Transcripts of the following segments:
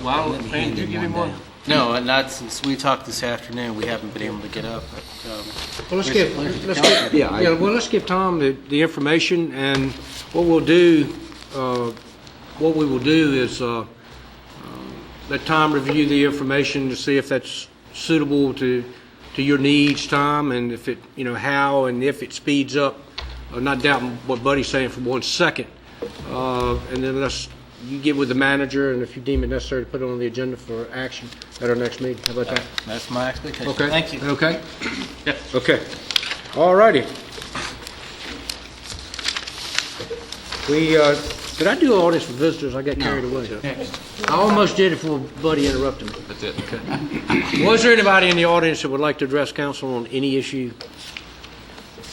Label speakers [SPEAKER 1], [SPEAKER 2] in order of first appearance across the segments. [SPEAKER 1] Why,
[SPEAKER 2] Let me
[SPEAKER 1] man,
[SPEAKER 2] hand
[SPEAKER 1] you
[SPEAKER 2] in
[SPEAKER 1] give him
[SPEAKER 2] one
[SPEAKER 1] one?
[SPEAKER 2] day. No, not since we talked this afternoon, we haven't been able to get up. but, um,
[SPEAKER 3] Well, let's
[SPEAKER 2] Where's
[SPEAKER 3] give,
[SPEAKER 2] the- where's the
[SPEAKER 3] let's
[SPEAKER 2] calendar?
[SPEAKER 3] give,
[SPEAKER 4] Yeah, I-
[SPEAKER 3] yeah, well, let's give Tom the, the information, and what we'll do, uh, what we will do is, uh, um, let Tom review the information to see if that's suitable to, to your needs, Tom, and if it, you know, how, and if it speeds up, I'm not doubting what Buddy's saying for one second. Uh, and then let's, you get with the manager, and if you deem it necessary, to put it on the agenda for action at our next meeting, how about that?
[SPEAKER 2] That's my expectation.
[SPEAKER 3] Okay.
[SPEAKER 2] Thank you.
[SPEAKER 3] Okay? Okay. All righty. We, uh, did I do all this for visitors? I got carried away. I almost did it before Buddy interrupted me. That's it. Okay. Was there anybody in the audience that would like to address council on any issue?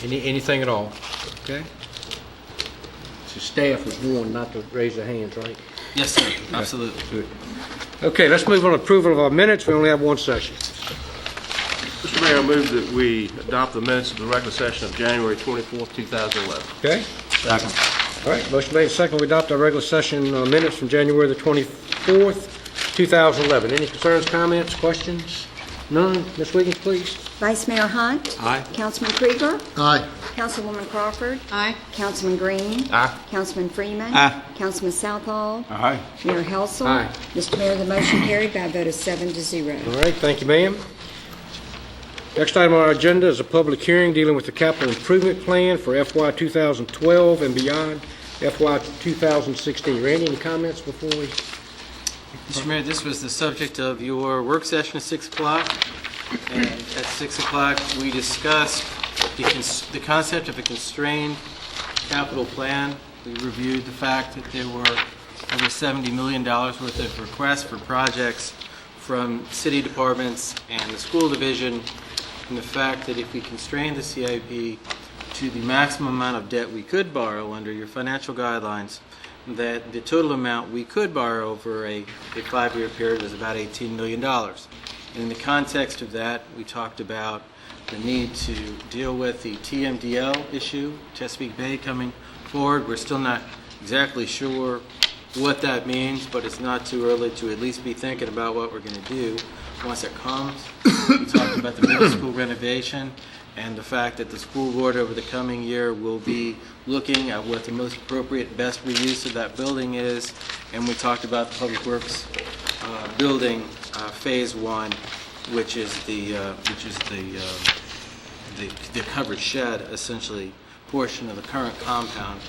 [SPEAKER 3] Any, anything at all? Okay? So staff was warned not to raise their hands, right?
[SPEAKER 2] Yes, sir, absolutely.
[SPEAKER 3] Okay, let's move on to approval of our minutes. We only have one session.
[SPEAKER 1] Mr. Mayor, I move that we adopt the minutes of the regular session of January 24th, 2011.
[SPEAKER 3] Okay? All right, motion made, second, we adopt our regular session uh, minutes from January the 24th, 2011. Any concerns, comments, questions? None? Ms. Wiggins, please.
[SPEAKER 5] Vice Mayor Hunt. Aye. Councilman Krieger.
[SPEAKER 3] Aye.
[SPEAKER 5] Councilwoman Crawford.
[SPEAKER 6] Aye.
[SPEAKER 5] Councilman Green.
[SPEAKER 3] Aye.
[SPEAKER 5] Councilman Freeman.
[SPEAKER 2] Aye.
[SPEAKER 5] Councilman Southall.
[SPEAKER 2] Aye.
[SPEAKER 5] Mayor Helsel.
[SPEAKER 3] Aye.
[SPEAKER 5] Mr. Mayor, the motion carried by a vote of seven to zero.
[SPEAKER 3] All right, thank you, ma'am. Next item on our agenda is a public hearing dealing with the capital improvement plan for FY 2012 and beyond FY 2016. Randy, any comments before we?
[SPEAKER 2] Mr. Mayor, this was the subject of your work session at 6 o'clock. And at 6 o'clock, we discussed the cons- the concept of a constrained capital plan. We reviewed the fact that there were over $70 million worth of requests for projects from city departments and the school division, and the fact that if we constrained the CIP to the maximum amount of debt we could borrow under your financial guidelines, that the total amount we could borrow over a, a five-year period was about $18 million. And in the context of that, we talked about the need to deal with the TMDL issue, Chesapeake Bay coming forward. We're still not exactly sure what that means, but it's not too early to at least be thinking about what we're going to do once it comes. We talked about the middle school renovation and the fact that the school board over the coming year will be looking at what the most appropriate, best reuse of that building is. And we talked about the Public Works uh, building, uh, Phase One, which is the, uh, which is the, uh, the the covered shed, essentially, portion of the current compound.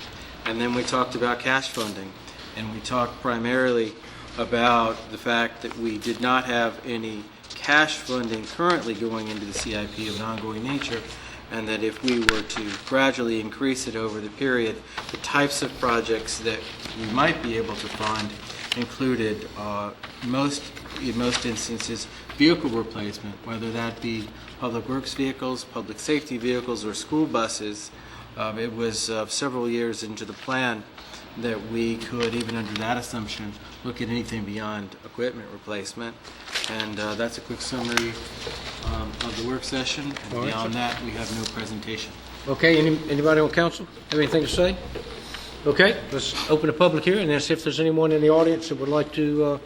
[SPEAKER 2] And then we talked about cash funding, and we talked primarily about the fact that we did not have any cash funding currently going into the CIP of an ongoing nature, and that if we were to gradually increase it over the period, the types of projects that we might be able to fund included uh, most, in most instances, vehicle replacement, whether that be public works vehicles, public safety vehicles, or school buses. Um, It was uh, several years into the plan that we could, even under that assumption, look at anything beyond equipment replacement. And uh, that's a quick summary um, of the work session. And beyond that, we have no presentation.
[SPEAKER 3] Okay, any- anybody on council have anything to say? Okay, let's open the public hearing and see if there's anyone in the audience that would like to uh,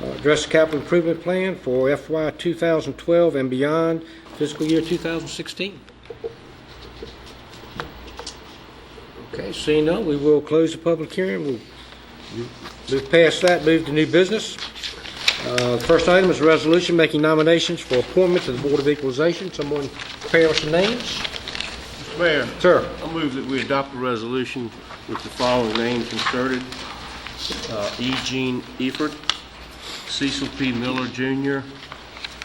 [SPEAKER 3] uh, address the capital improvement plan for FY 2012 and beyond fiscal year 2016. Okay, seeing none, we will close the public hearing. We'll move past that, move to new business. Uh, First item is a resolution making nominations for appointment to the Board of Equalization. Someone prepare us some names.
[SPEAKER 1] Mr. Mayor,
[SPEAKER 3] Sir?
[SPEAKER 1] I move that we adopt a resolution with the following names inserted. Uh, E. Gene Eford, Cecil P. Miller Jr.,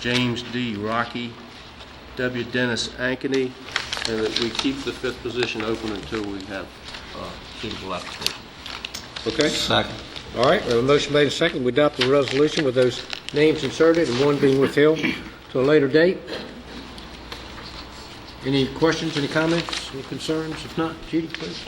[SPEAKER 1] James D. Rocky, W. Dennis Ankeny, and that we keep the fifth position open until we have uh, suitable applications.
[SPEAKER 3] Okay. Second. All right, we have a motion made and second. We adopt the resolution with those names inserted and one being withheld to a later date. Any questions, any comments, any concerns? If not, Judy, please.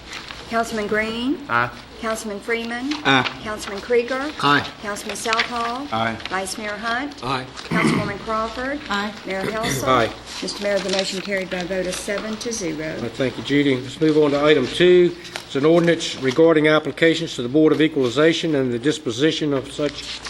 [SPEAKER 5] Councilman Green.
[SPEAKER 3] Aye.
[SPEAKER 5] Councilman Freeman. Aye. Councilman Krieger.
[SPEAKER 3] Aye.
[SPEAKER 5] Councilman Southall.
[SPEAKER 2] Aye.
[SPEAKER 5] Vice Mayor Hunt.
[SPEAKER 3] Aye.
[SPEAKER 5] Councilwoman Crawford.
[SPEAKER 6] Aye.
[SPEAKER 5] Mayor Helsel.
[SPEAKER 3] Aye.
[SPEAKER 5] Mr. Mayor, the motion carried by a vote of seven to zero.
[SPEAKER 3] All right, Thank you, Judy. Let's move on to item two. It's an ordinance regarding applications to the Board of Equalization and the disposition of such